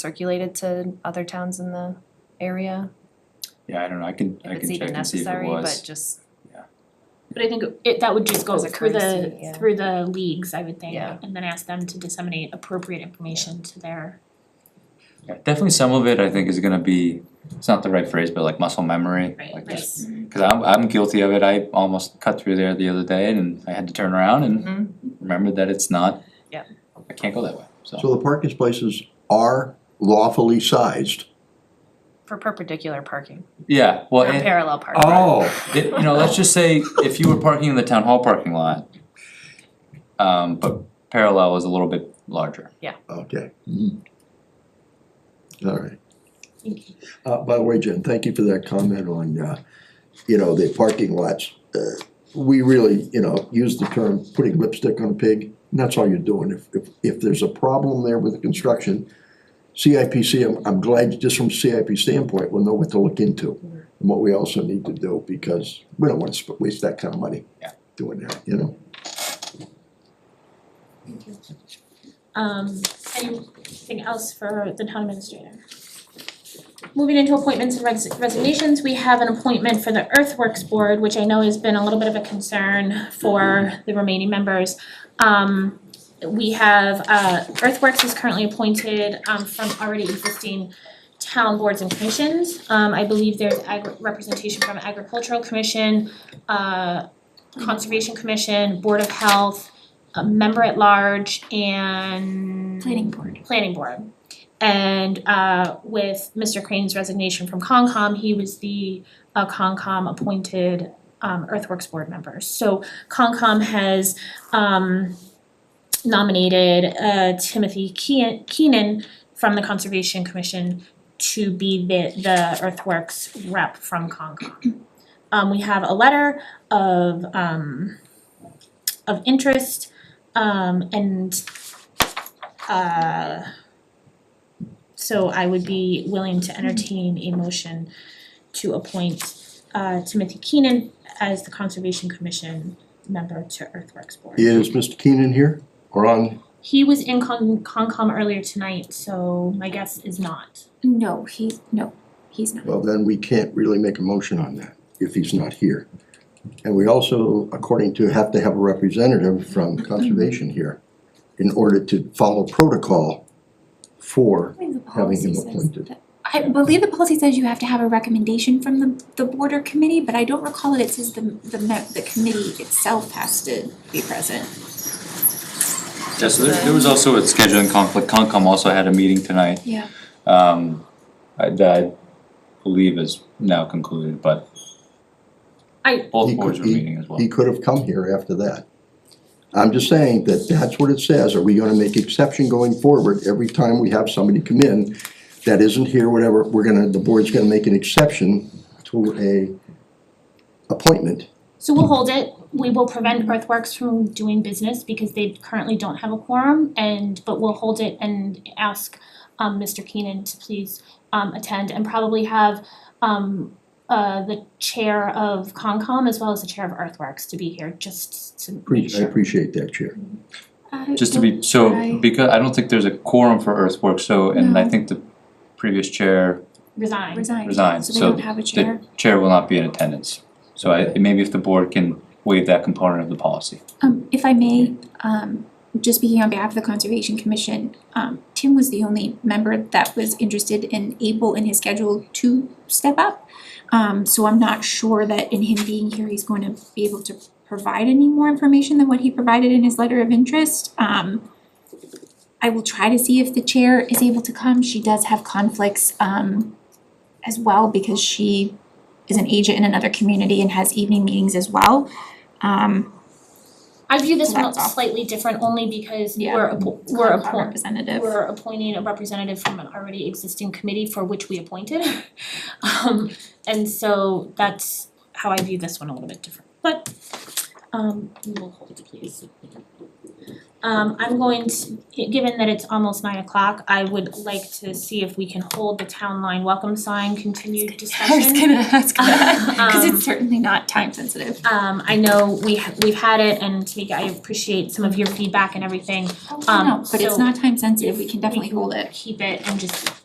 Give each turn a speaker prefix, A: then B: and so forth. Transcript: A: circulated to other towns in the area?
B: Yeah, I don't know, I can,
A: If
B: I
A: it's
B: can
A: even
B: check and see if it
A: necessary, but
B: was.
A: just,
C: But I think it, that would just go
A: As a
C: through the,
A: courtesy, yeah.
C: through the leagues, I would think,
A: Yeah.
C: and then ask them to disseminate appropriate information to their.
B: Yeah, Definitely some of it, I think, is gonna be, it's not the right phrase, but like muscle memory,
C: Right,
B: like
C: right.
B: just, cause I'm, I'm guilty of it, I almost cut through there the other day and I had to turn around
A: Mhm.
B: and remember that it's not.
A: Yep.
B: I can't go that way, so,
D: So the parking spaces are lawfully sized.
A: for perpendicular parking,
B: yeah, well,
A: or
B: and-
A: parallel parking.
D: Oh.
B: It, you know, let's just say if you were parking in the town hall parking lot, um, but parallel is a little bit larger.
D: Okay. Mhm. All right. Uh, by the way, Jen, thank you for that comment on, uh, you know, the parking lots. Uh, We really, you know, use the term putting lipstick on a pig, and that's all you're doing. If, if, if there's a problem there with the construction, CIPC, I'm, I'm glad just from CIP standpoint, we'll know what to look into. And what we also need to do, because we don't wanna sp- waste that kind of money.
B: Yeah.
D: Doing that, you know?
C: Um, anything else for the town administrator? Moving into appointments and res- resignations, we have an appointment for the earthworks board, which I know has been a little bit of a concern for the remaining members. Um, we have, uh, earthworks is currently appointed, um, from already existing town boards and commissions. Um, I believe there's agri- representation from agricultural commission, uh, conservation commission, board of health, a member at large and
E: Planning board.
C: planning board. And uh with Mr. Crane's resignation from Concom, he was the uh Concom appointed um earthworks board member. So Concom has um nominated uh Timothy Keen- Keenan from the Conservation Commission to be the the earthworks rep from Concom. Um we have a letter of um of interest um and uh so I would be willing to entertain a motion to appoint uh Timothy Keenan as the Conservation Commission member to Earthworks Board.
D: Is Mr. Keenan here or on?
C: He was in Con- Concom earlier tonight, so my guess is not.
E: No, he's, no, he's not.
D: Well, then we can't really make a motion on that if he's not here. And we also, according to, have to have a representative from conservation here in order to follow protocol for,
E: I think the
D: Having him
E: policy says
D: appointed.
E: that- I believe the policy says you have to have a recommendation from the, the board or committee, but I don't recall it, it says the, the, me- the committee itself has to be present.
B: Yeah, so there, there was also a scheduling conflict, Concom also had a meeting tonight,
E: Yeah.
B: um, I- that I believe is now concluded, but
C: I-
B: both
D: He
B: boards
D: could
B: were
D: be-
B: meeting as well.
D: he could have come here after that. I'm just saying that that's what it says. Are we gonna make exception going forward every time we have somebody come in that isn't here, whatever, we're gonna, the board's gonna make an exception to a appointment?
C: So we'll hold it, we will prevent Earthworks from doing business because they currently don't have a quorum and, but we'll hold it and ask um Mr. Keenan to please um attend and probably have um uh the chair of Concom as well as the chair of Earthworks to be here just to
D: Pre-
C: make
D: I
C: sure.
D: appreciate that, Chair.
B: Just to be, so, because, I don't think there's a quorum for earthworks, so, and I
E: No.
B: think the previous chair,
C: Resign.
E: Resign.
B: Resign,
E: they
B: so
E: don't have a
B: the
E: chair.
B: chair will not be in attendance. So I, maybe if the board can waive that component of the policy.
E: Um, if I may, um, just speaking on behalf of the Conservation Commission, um, Tim was the only member that was interested and able in his schedule to step up. Um, so I'm not sure that in him being here, he's going to be able to provide any more information than what he provided in his letter of interest. Um, I will try to see if the chair is able to come. She does have conflicts, um, as well because she is an agent in another community and has evening meetings as well. Um,
C: I view this one
E: That's all.
C: slightly different only because
E: Yeah.
C: we're appo- we're
E: Concom
C: appointing
E: representative.
C: We're appointing a representative from an already existing committee for which we appointed. Um, and so that's how I view this one a little bit different, but, um, we will hold it, please. Um I'm going to, given that it's almost nine o'clock, I would like to see if we can hold the town line welcome sign continued discussion.
E: I was gonna ask that, cause
C: Um,
E: it's certainly not time sensitive.
C: Um I know we ha- we've had it and Tamika, I appreciate some of your feedback and everything.
E: Oh, No, Um, but it's
C: so
E: not time sensitive, we can definitely
C: can
E: hold it.
C: Keep it and just